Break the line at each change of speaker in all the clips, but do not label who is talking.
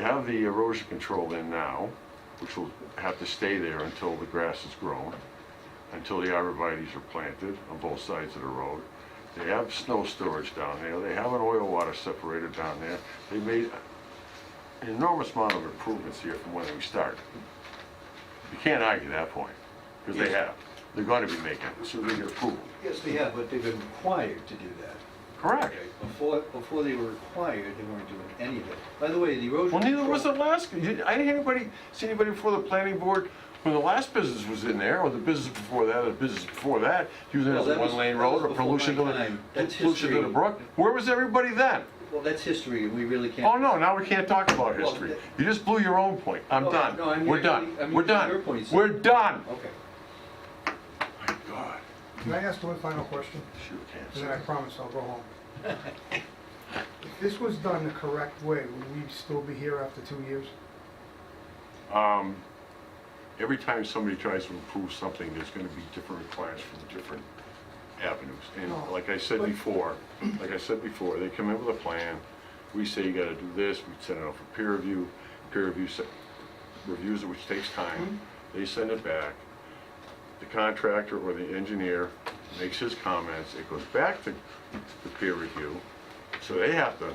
have the erosion control in now, which will have to stay there until the grass is grown, until the arborvitae's are planted on both sides of the road. They have snow storage down there, they have an oil water separator down there. They made an enormous amount of improvements here from when we started. You can't argue that point, because they have, they're gonna be making, it, so they get approval.
Yes, they have, but they've been required to do that.
Correct.
Before, before they were required, they weren't doing any of it. By the way, the erosion.
Well, neither was the
control-
last, I didn't hear anybody, see anybody before the planning board, when the last business was in there, or the business before that, or the business before that, using it
Well,
as a
that was-
one-lane
that
road,
was
or
before
pollution to
my time.
the,
That's
pollution to the
history.
brook, where was everybody then?
Well, that's history, and we really can't.
Oh, no, now we can't talk about
Well,
history,
that-
you just blew your own point, I'm
No, no, I
done,
mean-
we're
I
done,
mean,
we're
your Oh,
done,
points.
we're done!
Okay.
My God,
Can I ask one final question?
shoot, can't
And
say.
then I promise I'll go home. If this was done the correct way, would we still be here after two years?
Um, Every time somebody tries to improve something, there's gonna be different requirements from different avenues. And
No.
like I said before, like I said before, they come in with a plan, we say you gotta do this, we send it off for peer review, peer review se- reviews it, which takes time, they send it back. The contractor or the engineer makes his comments, it goes back to the peer review, so they have to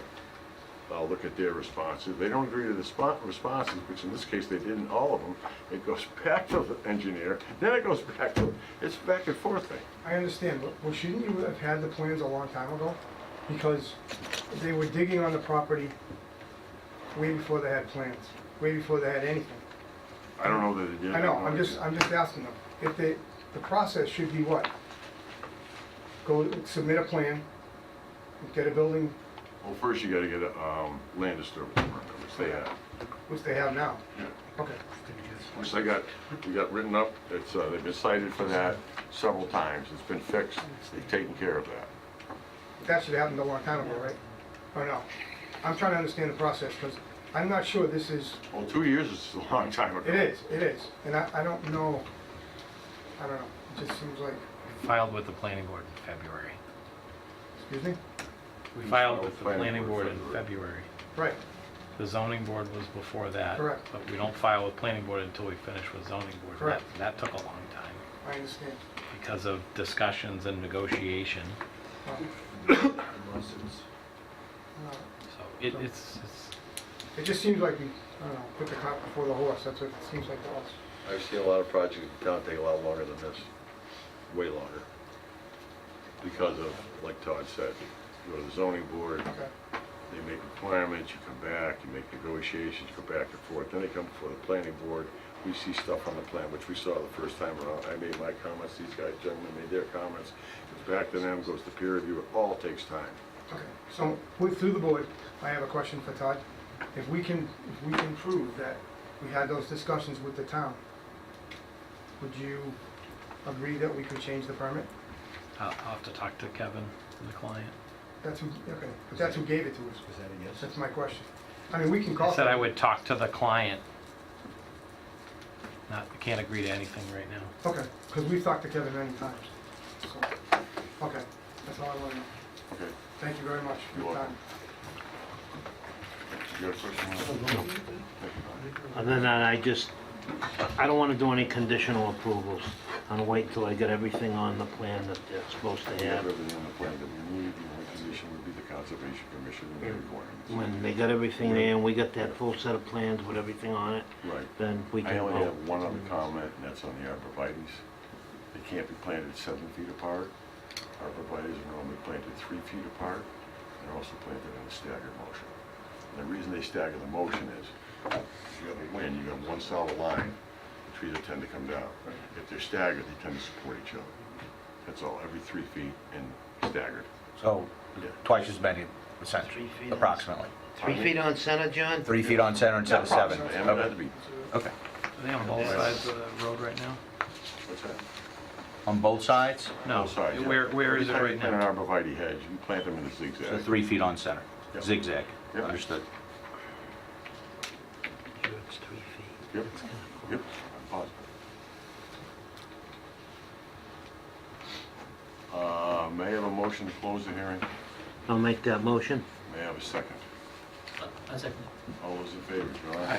I'll look at their responses. They don't agree to the spot responses, which in this case, they didn't, all of them. It goes back to the engineer, then it goes back to, it's back and forth thing.
I understand, but well, shouldn't you have had the plans a long time ago? Because they were digging on the property way before they had plans, way before they had anything.
I don't know that it did.
I know, I'm just, I'm just asking them, if they, the process should be what? Go submit a plan, get a building,
Well, first you gotta get a, um, land disturbance permit, which they have.
which they have now. Okay.
Which they got, we got written up, it's, uh, they've been cited for that several times. It's been fixed. They've taken care of that.
That should have happened a long time ago, right? Or no? I'm trying to understand the process, because I'm not sure this is,
Well, two years is a long time ago.
it is, it is, and I, I don't know, I don't know, it just seems like,
Filed with the planning board in February.
excuse me?
We filed with the planning board in February.
Right,
The zoning board was before that.
Correct.
But we don't file with planning board until we finish with zoning board.
Correct.
And That that took a long time
I understand.
because of discussions and negotiation.
Well, uh,
So it- it's, it's-
It just seems like, we I don't know, put the cart before the horse, that's what it seems like to us.
I've seen a lot of projects in town take a lot longer than this, way longer.
Because of, like Todd said, you go to the zoning board,
Okay,
They make requirements, you come back, you make negotiations, go back and forth, then they come before the planning board. We see stuff on the plan, which we saw the first time around. I made my comments, these guys, gentlemen made their comments. Goes back to them, goes to peer review, it all takes time.
okay. So, with, through the board, I have a question for Todd. If we can, if we can prove that we had those discussions with the town, would you agree that we could change the permit?
I'll I'll have to talk to Kevin, the client.
That's who, okay, but that's who gave it to us.
Is that a yes?
That's my question. I mean, we can
I
call.
said I would talk to the client. Not, I can't agree to anything right now.
Okay, because we've talked to Kevin many times. So, okay, that's all I want to know.
Okay,
Thank you very much for your
You're
time.
welcome. you got a question?
Other than that, I just, I don't want to do any conditional approvals. I'm gonna wait till I get everything on the plan that they're supposed to
We have
have.
everything on the plan that we need, the only condition would be the conservation commission and their requirements.
When they got everything there and we got that full set of plans with everything on it,
Right.
then we
I
can
only
vote.
have one other comment, and that's on the arborvitae's. They can't be planted seven feet apart. Arborvitae's are normally planted three feet apart. They're also planted in a staggered motion. And the reason they stagger the motion is, you have a wind, you have one solid line, the trees tend to come down. If they're staggered, they tend to support each other. That's all, every three feet and staggered.
So
Yeah.
twice as many, essentially,
Three feet.
approximately.
Three feet on center, John?
Three feet on center instead of seven.
They haven't had to
Okay.
be,
Okay.
Are they on both sides of the road right now?
what's that?
On both sides,
No.
Both sides, yeah.
Oh, Where, where is it
Every
right
time you plant
now?
an arborvitae hedge, you plant them in a zigzag.
so three feet on center,
Yep.
zigzag.
Yep.
Understood.
It's three feet.
Yep, yep, I'm positive. Uh, May I have a motion to close the hearing?
I'll make that motion.
May I have a second?
I
I second it.
All those in favor, John?